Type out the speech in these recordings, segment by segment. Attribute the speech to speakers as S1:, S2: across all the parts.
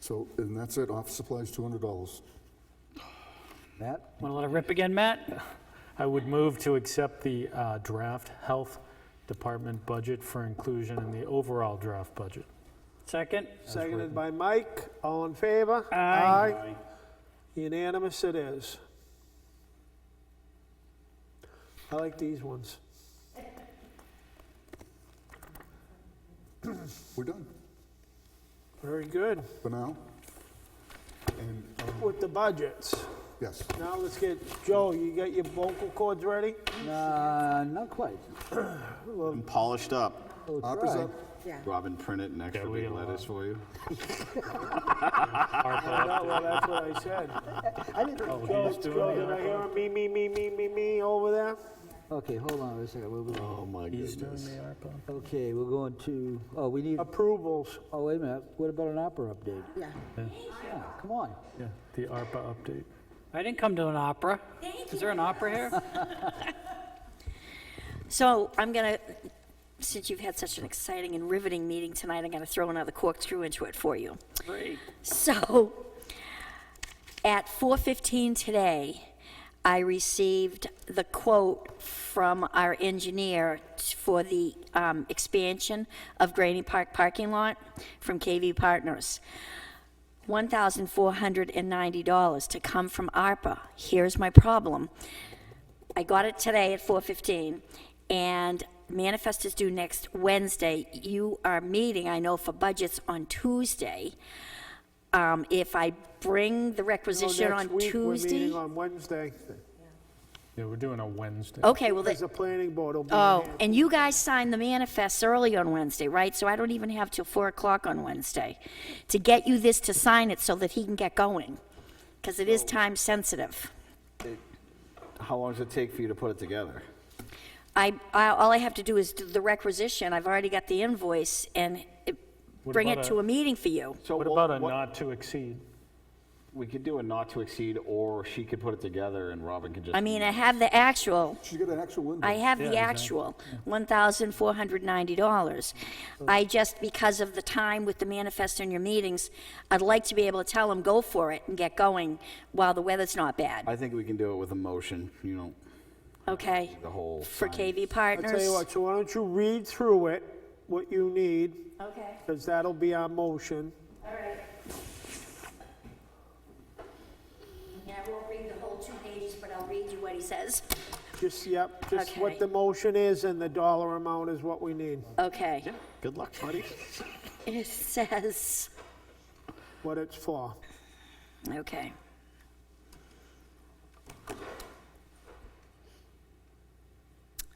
S1: So, and that's it, office supplies, $200.
S2: Matt?
S3: Want to let it rip again, Matt?
S4: I would move to accept the uh, draft Health Department budget for inclusion in the overall draft budget.
S3: Second?
S5: Seconded by Mike. All in favor?
S3: Aye.
S5: Unanimous it is. I like these ones.
S1: We're done
S5: Very good
S1: for now. And, um,
S5: with the budgets.
S1: yes,
S5: Now let's get, Joe, you got your vocal cords ready?
S2: Uh, not quite.
S6: And polished up.
S2: Oh,
S1: up is
S2: try.
S1: up.
S6: Robin printed an extra
S4: Yeah, we
S6: big
S4: got a lot.
S6: letters for you.
S5: No, Oh, well, that's what I said. Oh,
S2: I didn't-
S5: Joe, Joe, did I hear a me, me, me, me, me, me over there?
S2: Okay, hold on a second. We'll be-
S6: Oh my goodness.
S2: Okay, we're going to, oh, we need,
S5: Approvals.
S2: oh, wait a minute. What about an opera update?
S7: Yeah.
S2: Yeah, come on.
S4: Yeah, the ARPA update.
S3: I didn't come to an opera. Is there an opera here?
S7: So I'm going to, since you've had such an exciting and riveting meeting tonight, I'm going to throw another corkscrew into it for you.
S3: Great.
S7: So at 4:15 today, I received the quote from our engineer t- for the um, expansion of Granny Park parking lot from KV Partners. $1,490 to come from ARPA. Here's my problem. I got it today at 4:15, and manifest is due next Wednesday. You are meeting, I know, for budgets on Tuesday. Um, If I bring the
S5: No,
S7: requisition
S5: next
S7: on
S5: week, We're
S7: Tuesday.
S5: meeting on Wednesday.
S4: Yeah, we're doing a Wednesday.
S7: Okay, well,
S5: There's
S7: that,
S5: a planning board. will be
S7: oh,
S5: here.
S7: and you guys signed the manifests early on Wednesday, right? So I don't even have till 4 o'clock on Wednesday to get you this to sign it so that he can get going, because it is time sensitive.
S6: How long does it take for you to put it together?
S7: I, I, all I have to do is do the requisition, I've already got the invoice, and it-
S4: What
S7: bring it
S4: about
S7: to
S4: a-
S7: a meeting for you.
S6: So
S4: What
S6: we'll-
S4: about a
S6: what-
S4: not to exceed?
S6: We could do a not to exceed, or she could put it together and Robin could just.
S7: I mean, I
S4: Hmm.
S7: have the actual,
S1: She's got an actual window.
S7: I have the actual, $1,490. I just, because of the time with the manifest and your meetings, I'd like to be able to tell them, go for it and get going while the weather's not bad,
S6: I think we can do it with a motion, you know,
S7: okay?
S6: the whole.
S7: For
S6: sign.
S7: KV
S5: I'll
S7: Partners.
S5: tell you what, so why don't you read through it, what you need,
S7: Okay,
S5: because that'll be our motion.
S7: all right. Yeah, I won't read the whole two pages, but I'll read you what he says.
S5: Just, yep, just what
S7: Okay.
S5: the motion is and the dollar amount is what we need,
S7: Okay.
S6: Yeah, good luck, buddy.
S7: It says,
S5: what it's for.
S7: okay.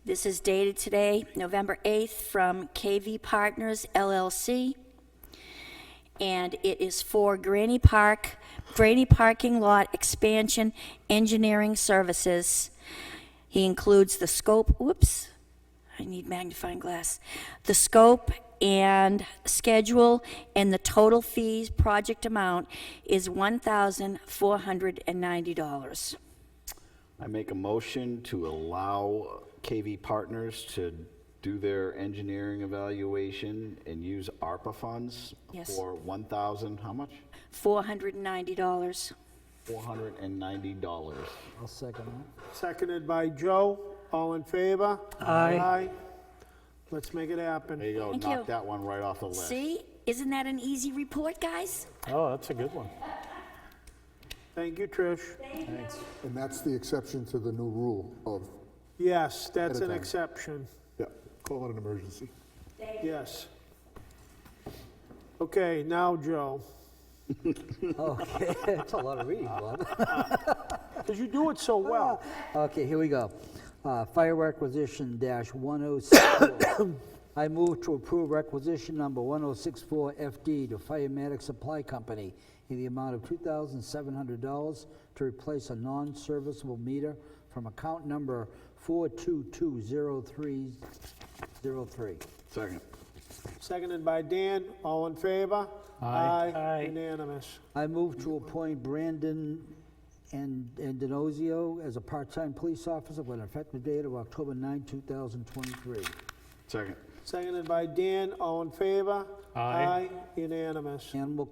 S7: This is dated today, November 8th, from KV Partners LLC. And it is for Granny Park, Granny Parking Lot Expansion Engineering Services. He includes the scope, whoops, I need magnifying glass. The scope and schedule and the total fees, project amount is $1,490.
S6: I make a motion to allow KV Partners to do their engineering evaluation and use ARPA funds
S7: Yes.
S6: for 1,000, how much?
S7: $490.
S6: $490.
S2: I'll second that.
S5: Seconded by Joe, all in favor?
S3: Aye.
S5: Let's make it happen.
S6: There you go,
S7: Thank
S6: knock
S7: you.
S6: that one right off the list.
S7: See, isn't that an easy report, guys?
S4: Oh, that's a good one.
S5: Thank you, Trish.
S1: And that's the exception to the new rule of,
S5: Yes,
S1: Ahead
S5: that's
S1: of
S5: an
S1: time.
S5: exception,
S1: yeah, call it an emergency.
S5: yes. Okay, now, Joe,
S2: Okay, that's a lot of reading, Bob.
S5: because you do it so well.
S2: Okay, here we go. Uh, Fire requisition dash 1064. I move to approve requisition number 1064 FD to Firematic Supply Company in the amount of $2,700 to replace a non-serviceable meter from account number 4220303.
S6: Second.
S5: Seconded by Dan, all in favor? Aye.
S3: Aye.
S5: Unanimous.
S2: I move to appoint Brandon and Andinozio as a part-time police officer with an effective date of October 9, 2023.
S6: Second.
S5: Seconded by Dan, all in favor?
S4: Aye.
S5: Unanimous.
S2: Animal